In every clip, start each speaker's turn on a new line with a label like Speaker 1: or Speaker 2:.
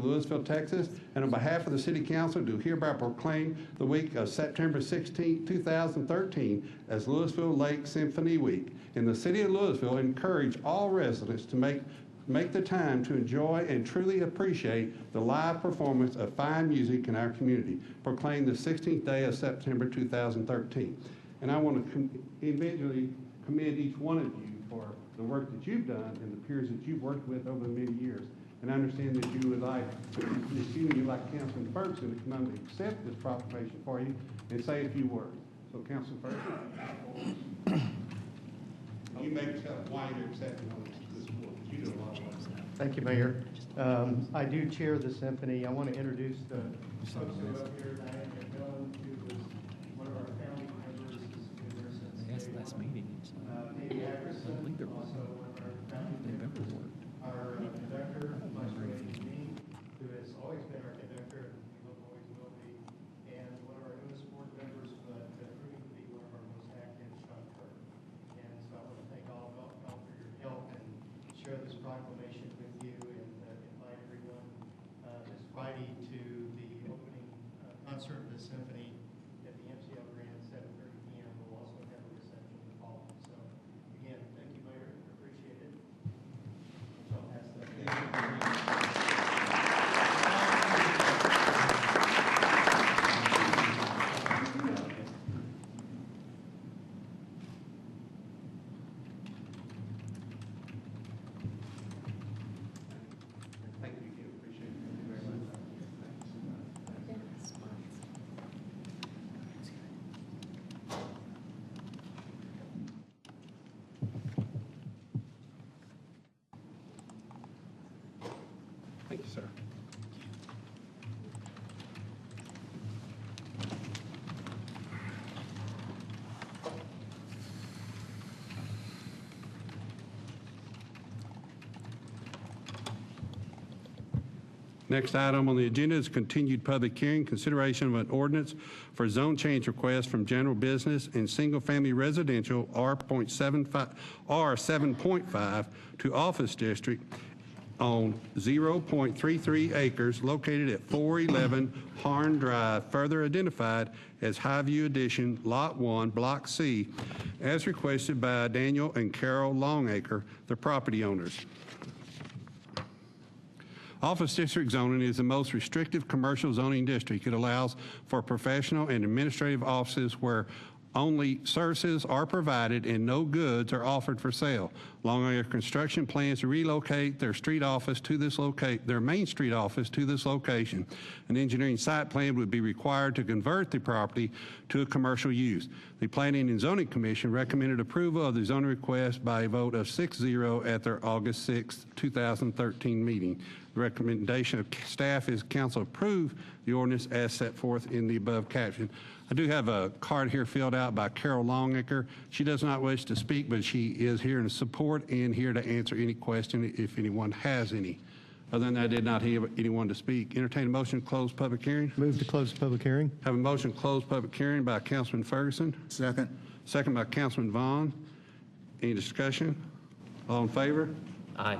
Speaker 1: Louisville, Texas, and on behalf of the City Council, do hereby proclaim the week of September 16, 2013 as Louisville Lake Symphony Week. In the city of Louisville, encourage all residents to make, make the time to enjoy and truly appreciate the live performance of fine music in our community. Proclaim the 16th day of September 2013. And I want to com- individually commend each one of you for the work that you've done and the peers that you've worked with over the many years. And I understand that you would like, excuse me, like Councilman Ferguson, to come and accept this proclamation for you and say a few words. So Councilman Ferguson. You make yourself wider accepting on this board, 'cause you do a lot of work.
Speaker 2: Thank you, Mayor. Um, I do chair the symphony. I want to introduce the folks who are up here, Diane McMillan, who was one of our founding members, has been there since
Speaker 3: That's
Speaker 2: day
Speaker 3: last
Speaker 2: one.
Speaker 3: meeting. it's
Speaker 2: Uh,
Speaker 3: not-
Speaker 2: Davey Ackerson,
Speaker 3: I think there was
Speaker 2: also one of our founding members.
Speaker 3: November worked.
Speaker 2: Our uh, conductor, Maestro Andy Dean, who has always been our conductor, and we hope always will be, and one of our newest board members, but uh, proving to be one of our most active, Sean Kirk. And so I want to thank all of y'all y'all for your help and share this proclamation with you and uh, invite everyone uh, this Friday to the opening uh, concert of the symphony at the MCL Grand at 7:30 PM. We'll also have a reception to follow. So again, thank you, Mayor, appreciate it. So I'll pass that.
Speaker 1: Thank you, Kim, appreciate it. Thank you very much. Thanks. Thank you, sir. Next item on the agenda is continued public hearing, consideration of an ordinance for zone change request from general business and single-family residential R.75, R7.5 to office district on 0.33 acres located at 411 Harn Drive, further identified as Highview Edition, Lot 1, Block C, as requested by Daniel and Carol Longacre, the property owners. Office district zoning is the most restrictive commercial zoning district. It allows for professional and administrative offices where only services are provided and no goods are offered for sale. Long Island Construction plans to relocate their street office to this locate, their main street office to this location. An engineering site plan would be required to convert the property to a commercial use. The Planning and Zoning Commission recommended approval of the zoning request by a vote of 6-0 at their August 6, 2013 meeting. The recommendation of staff is council approve the ordinance as set forth in the above caption. I do have a card here filled out by Carol Longacre. She does not wish to speak, but she is here in support and here to answer any question if anyone has any. Other than that, I did not hear anyone to speak. Entertain a motion to close public hearing.
Speaker 2: Move to close the public hearing.
Speaker 1: Have a motion to close public hearing by Councilman Ferguson,
Speaker 4: Second.
Speaker 1: second by Councilman Vaughn. Any discussion? All in favor?
Speaker 3: Aye.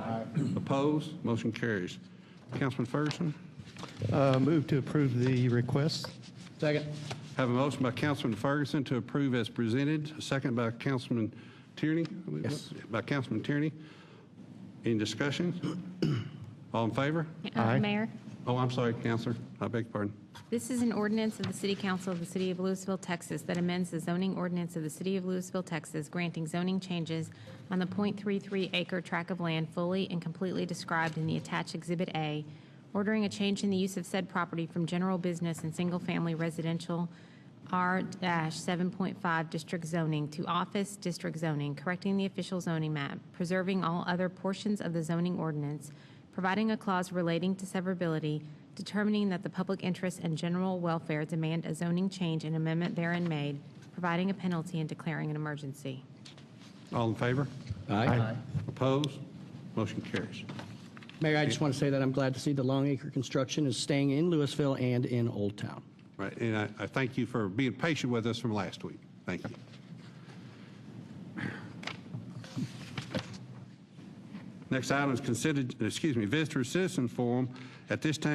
Speaker 1: Opposed? Motion carries. Councilman Ferguson?
Speaker 2: Uh, Move to approve the request.
Speaker 4: Second.
Speaker 1: Have a motion by Councilman Ferguson to approve as presented, a second by Councilman Tierney.
Speaker 4: Yes.
Speaker 1: By Councilman Tierney. Any discussion? All in favor?
Speaker 2: Aye.
Speaker 5: Uh, Mayor,
Speaker 1: Oh, I'm sorry, Counselor. I beg your pardon.
Speaker 5: this is an ordinance of the City Council of the City of Louisville, Texas, that amends the zoning ordinance of the City of Louisville, Texas, granting zoning changes on the .33 acre tract of land fully and completely described in the attached Exhibit A, ordering a change in the use of said property from general business and single-family residential R-7.5 district zoning to office district zoning, correcting the official zoning map, preserving all other portions of the zoning ordinance, providing a clause relating to severability, determining that the public interest and general welfare demand a zoning change and amendment therein made, providing a penalty and declaring an emergency.
Speaker 1: All in favor?
Speaker 4: Aye.
Speaker 1: Opposed? Motion carries.
Speaker 4: Mayor, I just want to say that I'm glad to see the Long Acre Construction is staying in Louisville and in Old Town.
Speaker 1: Right, and I, I thank you for being patient with us from last week. Thank you. Next item is considered, excuse me, visitor citizen forum At this time,